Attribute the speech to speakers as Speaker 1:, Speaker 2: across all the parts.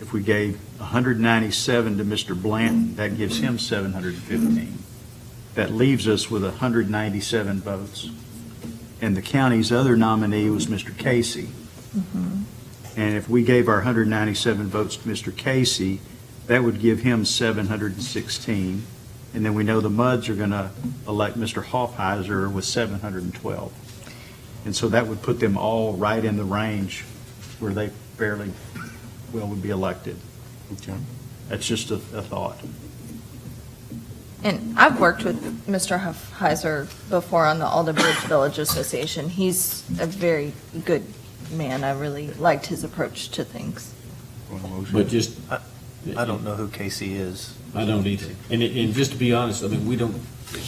Speaker 1: If we gave 197 to Mr. Blanton, that gives him 715. That leaves us with 197 votes. And the county's other nominee was Mr. Casey. And if we gave our 197 votes to Mr. Casey, that would give him 716. And then we know the MUDs are going to elect Mr. Hoffheiser with 712. And so that would put them all right in the range where they fairly well would be elected. That's just a, a thought.
Speaker 2: And I've worked with Mr. Heiser before on the Alder Bridge Village Association. He's a very good man. I really liked his approach to things.
Speaker 3: But just.
Speaker 4: I don't know who Casey is.
Speaker 3: I don't either. And, it- and just to be honest, I mean, we don't.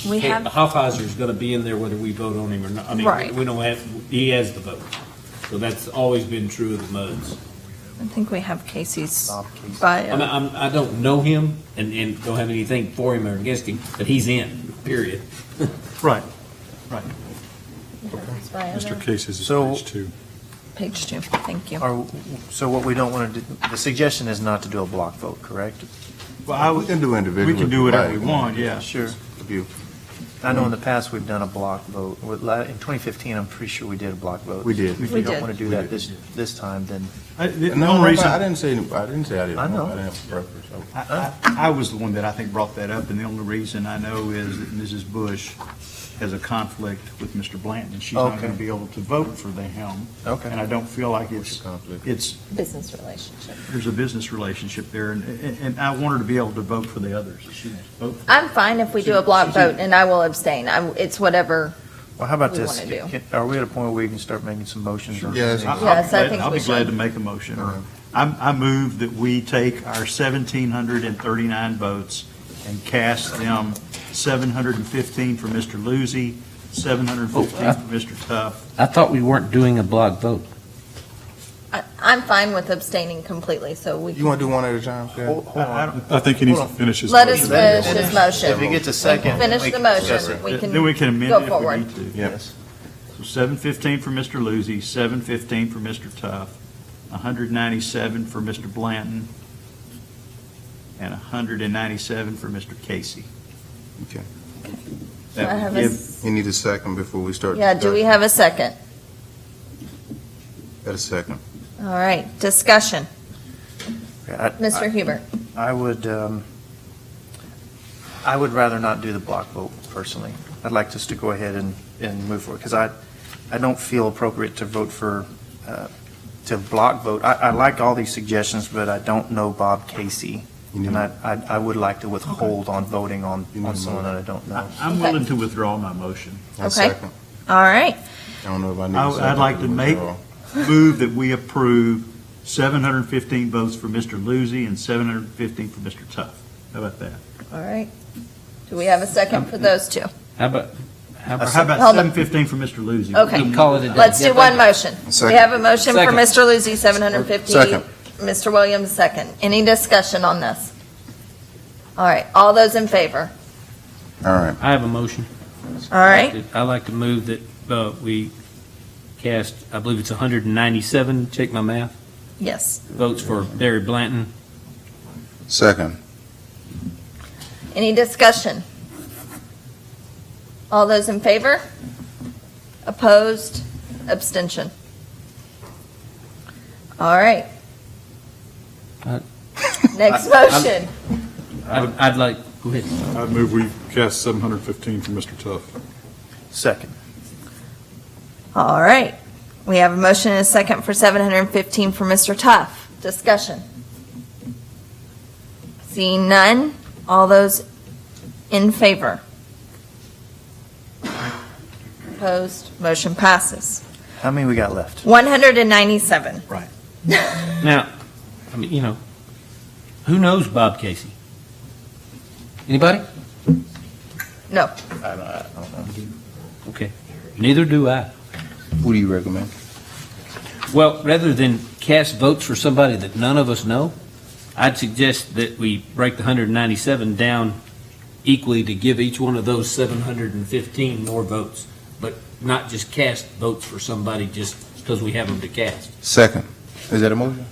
Speaker 2: We have-
Speaker 3: Hoffheiser's going to be in there whether we vote on him or not. I mean,
Speaker 2: Right.
Speaker 3: we- we don't have, he has the vote. So that's always been true of the MUDs.
Speaker 2: I think we have Casey's
Speaker 4: Bob Casey.
Speaker 3: I mean,
Speaker 2: bio.
Speaker 3: I'm, I don't know him and, and don't have anything for him or against him, but he's in, period.
Speaker 1: Right.
Speaker 2: His bio
Speaker 5: Mr.
Speaker 2: there.
Speaker 5: Casey's is
Speaker 4: So-
Speaker 5: page two.
Speaker 2: Page two, thank you.
Speaker 4: Are, so what we don't want to do, the suggestion is not to do a block vote, correct?
Speaker 1: Well, I
Speaker 6: We
Speaker 1: would,
Speaker 6: can do individual.
Speaker 1: we can
Speaker 6: if
Speaker 1: do
Speaker 6: you
Speaker 1: whatever we
Speaker 6: like.
Speaker 1: want, yeah.
Speaker 4: Sure.
Speaker 6: If you-
Speaker 4: I know in the past, we've done a block vote. With la- In 2015, I'm pretty sure we did a block vote.
Speaker 6: We did.
Speaker 4: If
Speaker 2: We
Speaker 4: you don't
Speaker 2: did.
Speaker 4: want to do
Speaker 6: We
Speaker 4: that
Speaker 6: did.
Speaker 4: this, this time, then
Speaker 1: I- The the
Speaker 6: No,
Speaker 1: only
Speaker 6: reason,
Speaker 1: reason,
Speaker 6: I
Speaker 1: I,
Speaker 6: didn't say, I didn't say I didn't.
Speaker 4: I know.
Speaker 6: I didn't have a preference. I-
Speaker 1: I I was the one that I think brought that up, and the only reason I know is that Mrs. Bush has a conflict with Mr. Blanton, and she's not
Speaker 4: Okay.
Speaker 1: going to be able to vote for the helm.
Speaker 4: Okay.
Speaker 1: And I don't feel like
Speaker 6: What's
Speaker 1: it's,
Speaker 6: your conflict?
Speaker 1: it's,
Speaker 2: Business relationship.
Speaker 1: there's a business relationship there, and, and- and I want her to be able to vote for the others. She wants to vote for
Speaker 2: I'm fine if we do a block vote, and I will abstain. I, it's whatever.
Speaker 4: Well, how about
Speaker 2: we
Speaker 4: this?
Speaker 2: wanna do.
Speaker 4: Can- Are we at a point where we can start making some motions? or-
Speaker 6: Yes.
Speaker 1: I- I'll be
Speaker 2: Yes, I
Speaker 1: glad-
Speaker 2: think
Speaker 1: I'll
Speaker 2: we
Speaker 1: be glad
Speaker 2: should.
Speaker 1: to make a motion.
Speaker 6: Okay.
Speaker 1: I'm- I move that we take our 1,739 votes and cast them 715 for Mr. Lucy, 715 for Mr. Tuff.
Speaker 7: I thought we weren't doing a block vote.
Speaker 2: I, I'm fine with abstaining completely, so we,
Speaker 6: You want to do one at a time, Cal?
Speaker 4: Hold- hold on.
Speaker 5: I think he needs to finish his.
Speaker 2: let us
Speaker 5: motion.
Speaker 2: finish his motion.
Speaker 4: If he gets a second. then
Speaker 2: Finish
Speaker 4: we
Speaker 2: the
Speaker 4: can-
Speaker 2: motion, we
Speaker 1: Then we can
Speaker 2: can
Speaker 1: amend
Speaker 2: go
Speaker 1: it if we
Speaker 2: forward.
Speaker 1: need to.
Speaker 6: Yes.
Speaker 1: So 715 for Mr. Lucy, 715 for Mr. Tuff, 197 for Mr. Blanton, and 197 for Mr. Casey.
Speaker 6: Okay.
Speaker 1: That
Speaker 2: I
Speaker 1: would
Speaker 2: have a
Speaker 1: give-
Speaker 2: s-
Speaker 6: You need a second before we start.
Speaker 2: Yeah, do we have a second?
Speaker 6: Got a second.
Speaker 2: All right, discussion.
Speaker 4: I-
Speaker 2: Mr. Huber?
Speaker 4: I would, um, I would rather not do the block vote personally. I'd like us to go ahead and, and move forward, because I, I don't feel appropriate to vote for, uh, to block vote. I, I like all these suggestions, but I don't know Bob Casey,
Speaker 6: You need-
Speaker 4: and I, I- I would like to withhold on voting on,
Speaker 6: You need
Speaker 4: on
Speaker 6: a
Speaker 4: someone that
Speaker 6: moment.
Speaker 4: I don't know.
Speaker 1: I- I'm
Speaker 2: Okay.
Speaker 1: willing to withdraw my motion.
Speaker 6: A
Speaker 2: Okay.
Speaker 6: second.
Speaker 2: All right,
Speaker 6: I don't know if I need
Speaker 1: I-
Speaker 6: a
Speaker 1: I'd
Speaker 6: second
Speaker 1: like to make-
Speaker 6: withdraw.
Speaker 1: move that we approve 715 votes for Mr. Lucy and 715 for Mr. Tuff. How about that?
Speaker 2: all right. Do we have a second for those two?
Speaker 7: How about, how
Speaker 1: Or how
Speaker 7: about,
Speaker 1: about
Speaker 2: Hold on.
Speaker 1: 715 for Mr. Lucy?
Speaker 2: Okay.
Speaker 7: call it a day?
Speaker 2: Let's do one motion. We
Speaker 6: Second.
Speaker 2: have a motion for
Speaker 7: Second.
Speaker 2: Mr. Lucy, 750.
Speaker 6: Second.
Speaker 2: Mr. Williams, second. Any discussion on this? All right, all those in favor?
Speaker 6: All right.
Speaker 7: I have a motion.
Speaker 2: All right,
Speaker 3: I'd like to move that, uh, we cast, I believe it's hundred and ninety-seven, check my math,
Speaker 2: yes.
Speaker 3: votes for Barry Blanton.
Speaker 6: Second.
Speaker 2: Any discussion? All those in favor? Opposed? Abstention? All right.
Speaker 7: Uh,
Speaker 2: Next motion.
Speaker 7: I'd, I'd like, go ahead.
Speaker 5: I move we cast 715 for Mr. Tuff.
Speaker 4: Second.
Speaker 2: All right. We have a motion and a second for 715 for Mr. Tuff. Discussion. Seeing none, all those in favor? Opposed? Motion passes.
Speaker 4: How many we got left?
Speaker 2: 197.
Speaker 3: Now, I mean, you know, who knows Bob Casey?
Speaker 7: Anybody?
Speaker 2: No.
Speaker 4: I don't, I don't know.
Speaker 3: Okay, neither do I.
Speaker 6: Who do you recommend?
Speaker 3: Well, rather than cast votes for somebody that none of us know, I'd suggest that we break the 197 down equally to give each one of those 715 more votes, but not just cast votes for somebody just because we have them to cast.
Speaker 6: Second. Is that a motion?